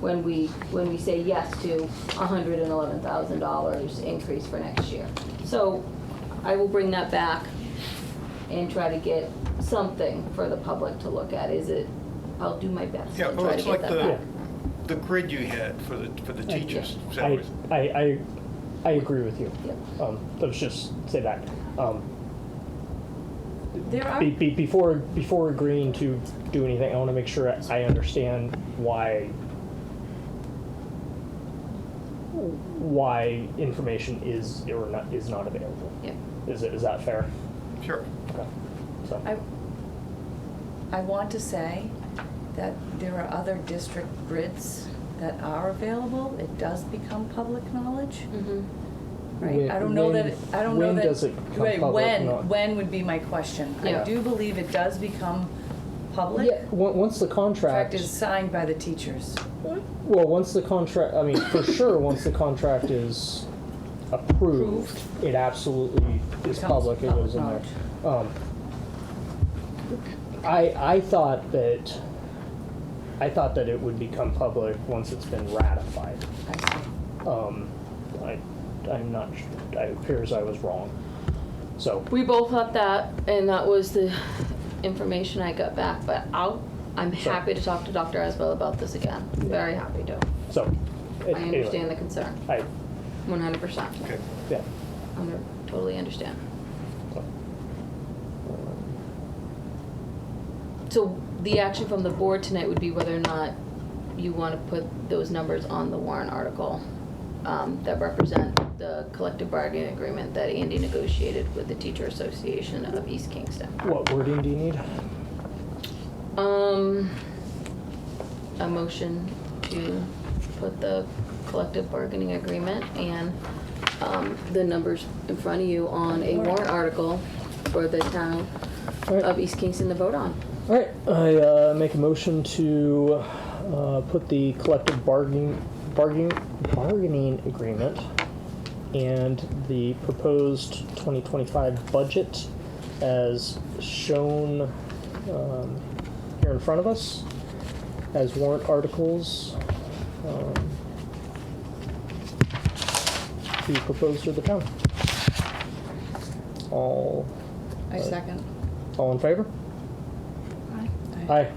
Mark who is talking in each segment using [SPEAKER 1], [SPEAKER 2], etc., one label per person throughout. [SPEAKER 1] when we, when we say yes to hundred and eleven thousand dollars increase for next year. So I will bring that back and try to get something for the public to look at. Is it, I'll do my best
[SPEAKER 2] Yeah,
[SPEAKER 1] to
[SPEAKER 2] well,
[SPEAKER 1] try to
[SPEAKER 2] it's
[SPEAKER 1] get
[SPEAKER 2] like
[SPEAKER 1] that
[SPEAKER 2] the,
[SPEAKER 1] back.
[SPEAKER 2] the grid you had for the, for the teachers.
[SPEAKER 1] yeah.
[SPEAKER 2] salaries.
[SPEAKER 3] I, I, I, I agree with you.
[SPEAKER 1] Yep.
[SPEAKER 3] Um, let's just say that. Um,
[SPEAKER 4] There are,
[SPEAKER 3] be, be, before, before agreeing to do anything, I want to make sure I understand why, why information is or not, is not available.
[SPEAKER 1] Yeah.
[SPEAKER 3] Is it, is that fair?
[SPEAKER 2] Sure.
[SPEAKER 3] Okay. So,
[SPEAKER 4] I, I want to say that there are other district grids that are available. It does become public knowledge,
[SPEAKER 1] Mhm.
[SPEAKER 4] right?
[SPEAKER 3] When-
[SPEAKER 4] I don't know that,
[SPEAKER 3] when-
[SPEAKER 4] I don't know
[SPEAKER 3] when
[SPEAKER 4] that.
[SPEAKER 3] does it become
[SPEAKER 4] right,
[SPEAKER 3] public
[SPEAKER 4] When,
[SPEAKER 3] knowledge?
[SPEAKER 4] when would be my question. I
[SPEAKER 1] Yeah.
[SPEAKER 4] do believe it does become public.
[SPEAKER 3] yeah, on- once the contract.
[SPEAKER 4] Contract is signed by the teachers.
[SPEAKER 3] Well, once the contract, I mean, for sure, once the contract is approved, it absolutely is
[SPEAKER 4] Becomes
[SPEAKER 3] public, it goes in there. Um, I, I thought that, I thought that it would become public once it's been ratified.
[SPEAKER 4] I see.
[SPEAKER 3] Um, I, I'm not, su- it appears I was wrong. So,
[SPEAKER 1] We both thought that, and that was the information I got back, but I'll, I'm
[SPEAKER 3] Sure.
[SPEAKER 1] happy to talk to Dr. Asbell about this again. Very happy to.
[SPEAKER 3] so.
[SPEAKER 1] I
[SPEAKER 3] it- anyway,
[SPEAKER 1] understand the concern,
[SPEAKER 3] I,
[SPEAKER 1] one hundred percent.
[SPEAKER 2] Okay.
[SPEAKER 3] yeah.
[SPEAKER 1] I totally understand.
[SPEAKER 3] so. Um,
[SPEAKER 1] So the action from the board tonight would be whether or not you want to put those numbers on the warrant article um, that represent the collective bargaining agreement that Andy negotiated with the Teacher Association of East Kingston.
[SPEAKER 3] What wording do you need?
[SPEAKER 1] Um, a motion to put the collective bargaining agreement and, um, the numbers in front of you on a warrant article for the town of East Kingston to vote on.
[SPEAKER 3] All right, I uh, make a motion to uh, put the collective bargaining, bargaining, bargaining agreement and the proposed 2025 budget as shown um, here in front of us as warrant articles um, to be proposed to the town. All,
[SPEAKER 4] I second.
[SPEAKER 3] all in favor? Aye.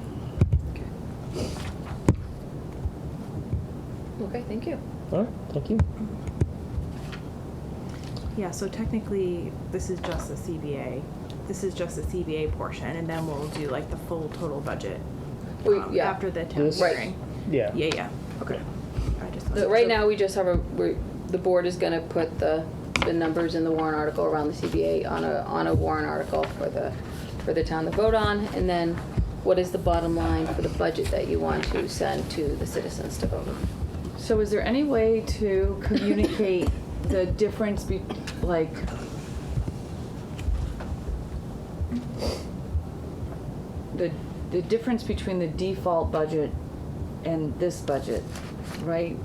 [SPEAKER 1] Okay, thank you.
[SPEAKER 3] All right, thank you.
[SPEAKER 5] Yeah, so technically, this is just the CBA. This is just the CBA portion, and then we'll do like the full total budget
[SPEAKER 1] We,
[SPEAKER 5] um,
[SPEAKER 1] yeah,
[SPEAKER 5] after the town
[SPEAKER 3] This- Right.
[SPEAKER 5] hearing.
[SPEAKER 3] Yeah.
[SPEAKER 5] Yeah, yeah. Okay. I just
[SPEAKER 1] The- right now, we just have a, we, the board is gonna put the, the numbers in the warrant article around the CBA on a, on a warrant article for the, for the town to vote on, and then what is the bottom line for the budget that you want to send to the citizens to vote on?
[SPEAKER 6] So is there any way to communicate the difference be, like? The, the difference between the default budget and this budget, right?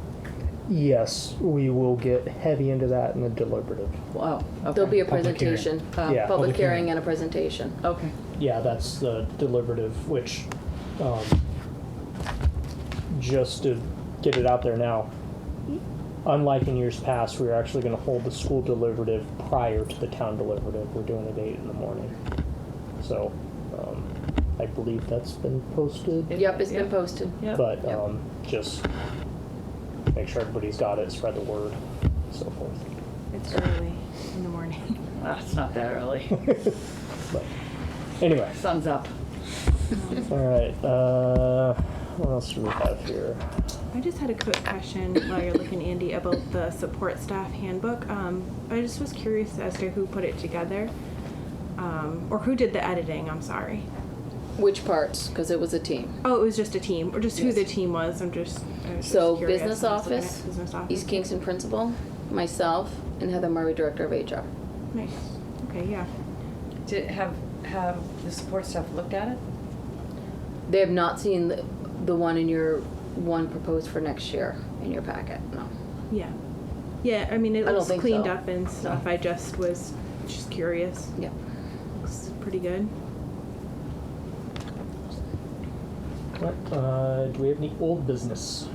[SPEAKER 3] Yes, we will get heavy into that in the deliberative.
[SPEAKER 6] Wow, okay.
[SPEAKER 1] There'll be a
[SPEAKER 3] Public hearing.
[SPEAKER 1] presentation,
[SPEAKER 3] Yeah,
[SPEAKER 1] uh,
[SPEAKER 3] public
[SPEAKER 1] public
[SPEAKER 3] hearing.
[SPEAKER 1] hearing and a presentation.
[SPEAKER 6] Okay,
[SPEAKER 3] Yeah, that's the deliberative, which, um, just to get it out there now, unlike in years past, we're actually going to hold the school deliberative prior to the town deliberative. We're doing it eight in the morning. So, um, I believe that's been posted,
[SPEAKER 1] Yep, it's been
[SPEAKER 6] Yep.
[SPEAKER 1] posted.
[SPEAKER 6] yeah.
[SPEAKER 3] but, um, just make sure everybody's got it, spread the word, so forth.
[SPEAKER 5] It's early in the morning.
[SPEAKER 6] That's not that early.
[SPEAKER 3] But, anyway.
[SPEAKER 6] Sun's up.
[SPEAKER 3] All right. Uh, what else do we have here?
[SPEAKER 5] I just had a quick question while you're looking, Andy, about the support staff handbook. Um, I just was curious as to who put it together, um, or who did the editing. I'm sorry.
[SPEAKER 1] Which parts? Because it was a team.
[SPEAKER 5] Oh, it was just a team, or just who
[SPEAKER 1] Yes.
[SPEAKER 5] the team was. I'm just. I was
[SPEAKER 1] So
[SPEAKER 5] just curious
[SPEAKER 1] business
[SPEAKER 5] when I was looking at
[SPEAKER 1] office,
[SPEAKER 5] Business office.
[SPEAKER 1] East Kingston principal, myself, and Heather Murray, director of HR.
[SPEAKER 5] Nice. Okay. Yeah.
[SPEAKER 4] Did, have, have the support staff looked at it?
[SPEAKER 1] They have not seen the, the one in your, one proposed for next year in your packet, no.
[SPEAKER 5] Yeah. Yeah, I mean,
[SPEAKER 1] I
[SPEAKER 5] it
[SPEAKER 1] don't
[SPEAKER 5] looks
[SPEAKER 1] think
[SPEAKER 5] cleaned
[SPEAKER 1] so.
[SPEAKER 5] up and stuff. I just was just curious.
[SPEAKER 1] Yeah.
[SPEAKER 5] Looks pretty good.
[SPEAKER 3] What? Uh, do we have any old business?